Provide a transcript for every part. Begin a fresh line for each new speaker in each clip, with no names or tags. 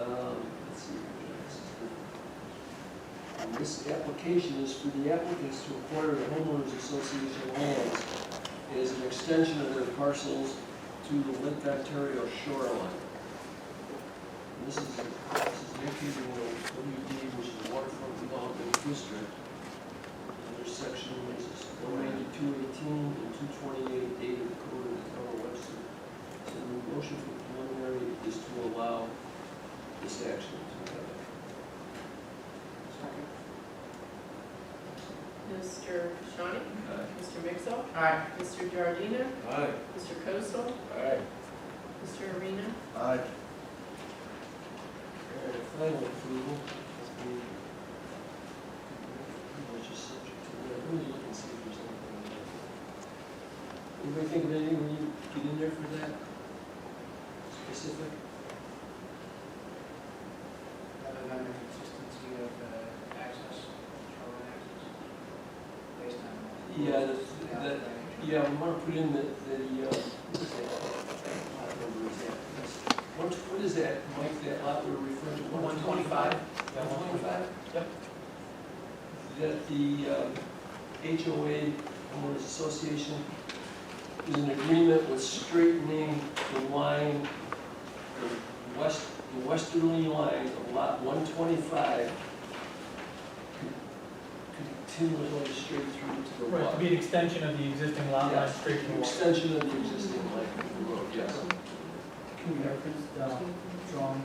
Um, This application is for the applicants to acquire the homeowners association lands as an extension of their parcels to the Lake Ontario shoreline. And This is, this is located in WD, which is the waterfront development district. And their section is one ninety-two eighteen and two twenty-eight dated according to the town of Webster. So the motion for preliminary is to allow this action to happen.
Mr. Shawnee? Mr. Mixel?
Aye.
Mr. Giardina?
Aye.
Mr. Kosel?
Aye.
Mr. Arena?
Aye.
Alright, Final approval is the. Which is subject to, let me look and see if there's anything in there. Anybody think of anything when you get in there for that? Specific?
Other than the consistency of uh, access, shoreline access, based on.
Yeah, that's- that- Yeah, we want to put in the, the, uh, what is that? Lot number is that, that's- what, what is that, Mike, that lot we're referring to?
One twenty-five?
One twenty-five?
Yep.
That the uh, HOA, homeowners association, is in agreement with straightening the line, the west, the westerly line of lot one twenty-five continually straight through to the
Right, to
water.
be an extension of the existing lot line straight to the
An
water.
Extension of the existing line of the road, yes.
Can we reference the drawing,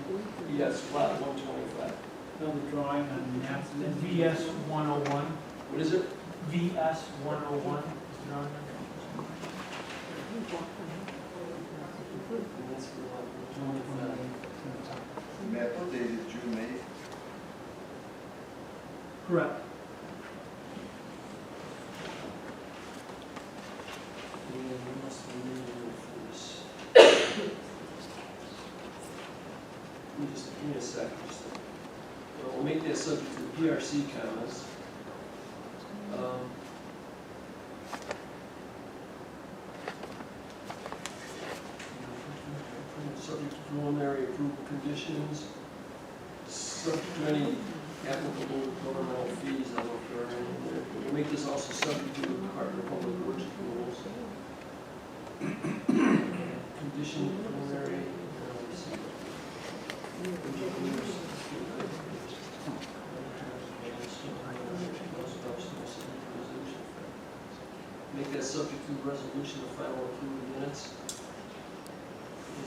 Yes, lot one twenty-five.
no, the drawing on the map? VS one oh one,
What is it?
VS one oh one is the drawing
That's for lot
number?
125.
Map dated June eighth.
Correct.
Yeah, we must be moving for this. Let me just, give me a sec, just, uh, we'll make that subject to the PRC comments. Um, Subject to preliminary approval conditions, subject to any applicable governmental fees, I don't know if there are any there. We'll make this also subject to the Department of Public Works rules. Condition preliminary. uh, let's see. Make that subject to resolution of final approval minutes.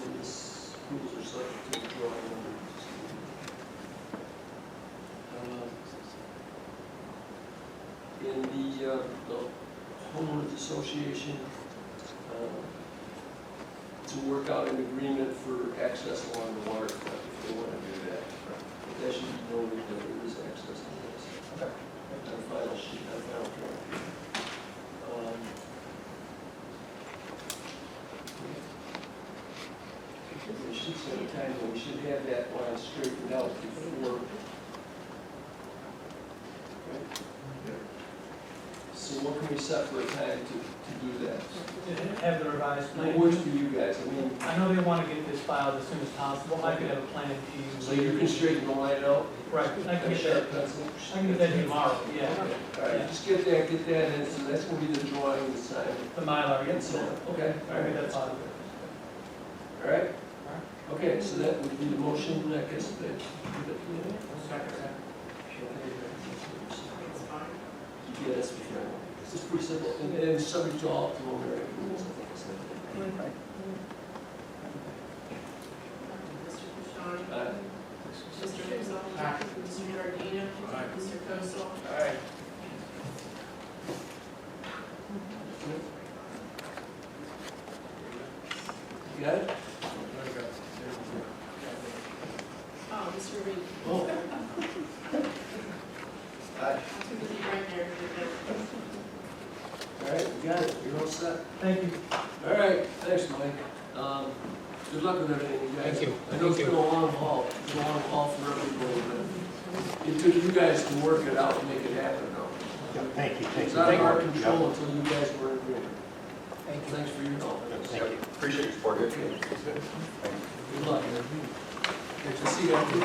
And this rules are subject to the drawing number. Uh, In the, uh, the homeowners association, uh, to work out an agreement for access along the waterfront, if they want to do that. But that should be noted that there is access to this.
Okay.
On final sheet, on final drawing. Um, We should set a time, when we should have that line straightened out before. Right? So what can we set for a time to, to do that?
To Have the revised
It works
plan.
for you guys, I mean,
I know they want to get this filed as soon as possible. I could have a plan to
so
you
you can
later.
straighten the line out?
Right, I can get that, I can get that tomorrow, yeah.
All right, just get that, get that, and so that's gonna be the drawing, the sign,
The Mylar, yeah,
and so
so,
on, okay?
I think that's all.
All right? Okay, so that would be the motion, I guess, that.
It's fine.
Yeah, that's for sure. This is pretty simple, and, and subject to all preliminary approvals, I think, so.
Mr. Shawnee?
Uh,
Mr. Mixel?
Aye.
Mr. Giardina?
Aye.
Mr. Kosel?
Aye.
You got it?
Oh, Mr. Reed.
Oh.
Aye.
Too busy right there.
All right, you got it, you're all set.
Thank you.
All right, thanks, Mike. Um, good luck with everything, you guys.
Thank you.
I know it's
Thank you.
been a long haul, it's been a long haul for everybody, but it took you guys to work it out and make it happen, though.
Thank you, thank
It's
you.
out of our
Thank you.
control until you guys were in agreement. Thanks for your help.
Yeah, Thank you.
Appreciate your support.
Okay. Good luck. Good to see you.